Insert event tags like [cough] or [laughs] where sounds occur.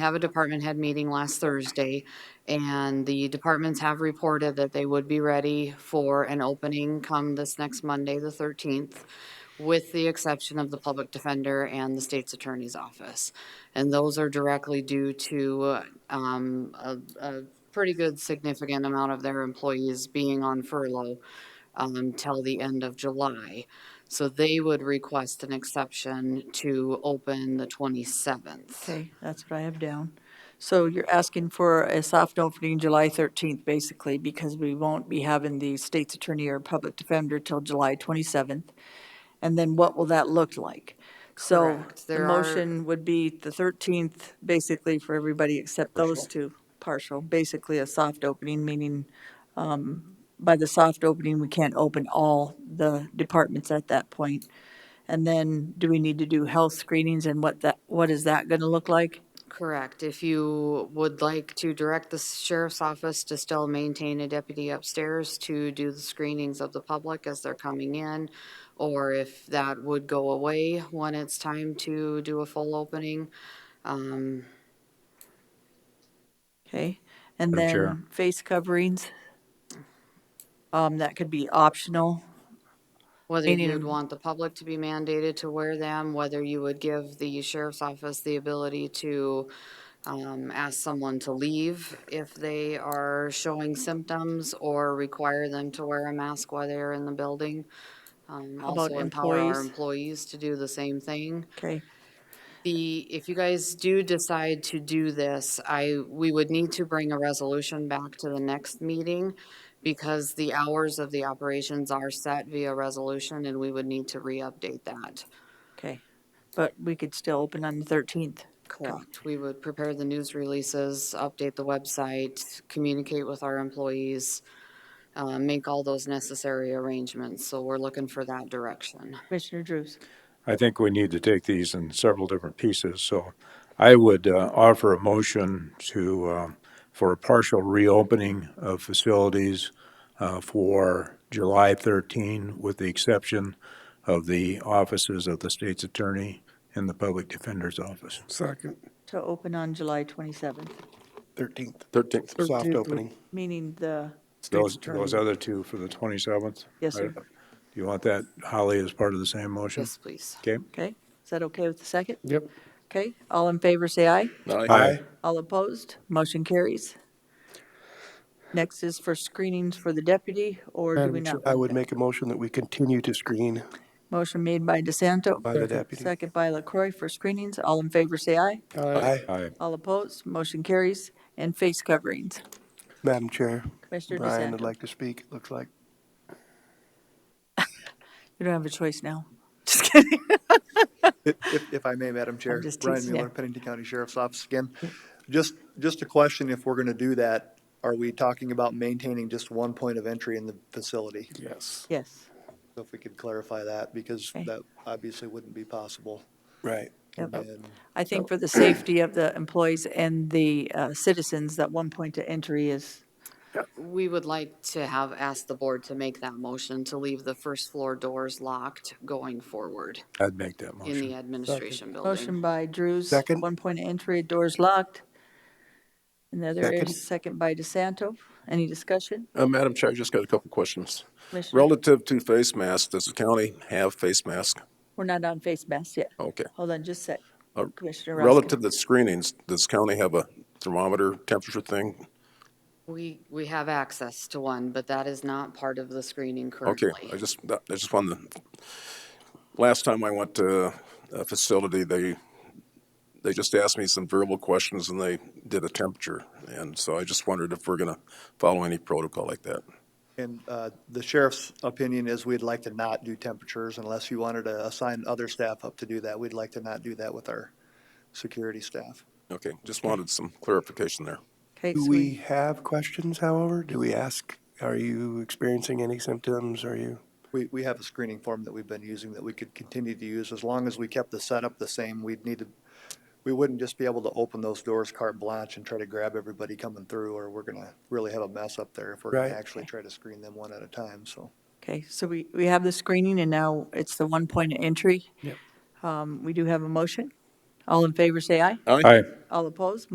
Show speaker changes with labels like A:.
A: have a department head meeting last Thursday, and the departments have reported that they would be ready for an opening come this next Monday, the thirteenth, with the exception of the public defender and the state's attorney's office. And those are directly due to, um, a, a pretty good significant amount of their employees being on furlough um, till the end of July. So they would request an exception to open the twenty-seventh.
B: Okay, that's what I have down. So you're asking for a soft opening July 13th, basically, because we won't be having the state's attorney or public defender till July 27th. And then what will that look like? So
A: Correct.
B: the
A: There are-
B: motion would be the 13th, basically, for everybody except those two, partial, basically a soft opening, meaning um, by the soft opening, we can't open all the departments at that point. And then do we need to do health screenings and what that, what is that going to look like?
A: Correct. If you would like to direct the sheriff's office to still maintain a deputy upstairs to do the screenings of the public as they're coming in, or if that would go away when it's time to do a full opening. Um,
B: Okay, and
C: Madam Chair.
B: then face coverings. Um, that could be optional.
A: Whether
B: Meaning-
A: you'd want the public to be mandated to wear them, whether you would give the sheriff's office the ability to um, ask someone to leave if they are showing symptoms or require them to wear a mask while they're in the building. Um,
B: How about
A: Also empower our
B: employees?
A: employees to do the same thing.
B: Okay,
A: The, if you guys do decide to do this, I, we would need to bring a resolution back to the next meeting because the hours of the operations are set via resolution and we would need to re-update that.
B: okay. But we could still open on the thirteenth.
A: Correct. We would prepare the news releases, update the website, communicate with our employees, uh, make all those necessary arrangements. So we're looking for that direction.
B: Commissioner Drews,
C: I think we need to take these in several different pieces, so I would uh, offer a motion to, uh, for a partial reopening of facilities uh, for July 13, with the exception of the offices of the state's attorney and the public defender's office.
D: Second.
B: to open on July twenty-seventh,
D: Thirteenth.
E: Thirteenth.
D: Soft opening.
B: meaning the,
C: Those, those other two for the 27th?
B: Yes, sir.
C: I- Do you want that, Holly, as part of the same motion?
A: Yes, please.
C: Okay?
B: okay? Is that okay with the second?
D: Yep.
B: Okay, all in favor, say aye.
C: Aye.
B: All opposed, motion carries. Next is for screenings for the deputy, or do we
D: Madam Chair,
B: not?
D: I
B: want
D: would
B: that?
D: make a motion that we continue to screen
B: Motion made by DeSanto.
D: by the deputy.
B: Second by LaCroy for screenings. All in favor, say aye.
D: Aye.
C: Aye.
B: All opposed, motion carries. And face coverings.
D: Madam Chair,
B: Commissioner
D: Brian would
B: DeSanto,
D: like to speak, it looks like.
B: you don't have a choice now. [laughs] Just kidding.
F: If- If, if I may, Madam Chair,
B: just
F: Brian
B: teasing you.
F: Mueller, Pennington County Sheriff's Office again. Just, just a question, if we're going to do that, are we talking about maintaining just one point of entry in the facility?
D: Yes.
B: Yes,
F: So If we could clarify that, because
B: Okay.
F: that obviously wouldn't be possible.
D: Right.
B: Yep.
F: And
B: I think for the safety of the employees and the uh, citizens, that one point to entry is,
A: We would like to have asked the board to make that motion to leave the first floor doors locked going forward
C: I'd make that
A: in
C: motion.
A: the administration building.
B: motion by Drews.
D: Second.
B: One point of entry, doors locked. And the other
D: Second.
B: is second by DeSanto. Any discussion?
E: Uh, Madam Chair, I just got a couple questions.
B: Commissioner,
E: Relative to face masks, does the county have face masks?
B: we're not on face masks yet.
E: Okay.
B: Hold on just a sec.
E: Uh,
B: Commissioner Roskin.
E: Relative to screenings, does county have a thermometer temperature thing?
A: We, we have access to one, but that is not part of the screening
E: Okay,
A: currently.
E: I just, that- I just wanted to, last time I went to a facility, they, they just asked me some verbal questions and they did a temperature. And so I just wondered if we're going to follow any protocol like that.
F: and uh, the sheriff's opinion is we'd like to not do temperatures unless you wanted to assign other staff up to do that. We'd like to not do that with our security staff.
E: Okay, just wanted some clarification there.
B: Okay,
D: Do
B: so
D: we have questions, however? Do we ask, are you experiencing any symptoms? Are you?
F: We, we have a screening form that we've been using that we could continue to use as long as we kept the setup the same. We'd need to, we wouldn't just be able to open those doors carte blanche and try to grab everybody coming through, or we're gonna really have a mess up there if we're gonna
D: Right.
F: actually try to screen them one at a time, so.
B: Okay, so we, we have the screening and now it's the one point of entry. Um, we do have a motion. All in favor, say aye.
C: Aye.
B: All opposed,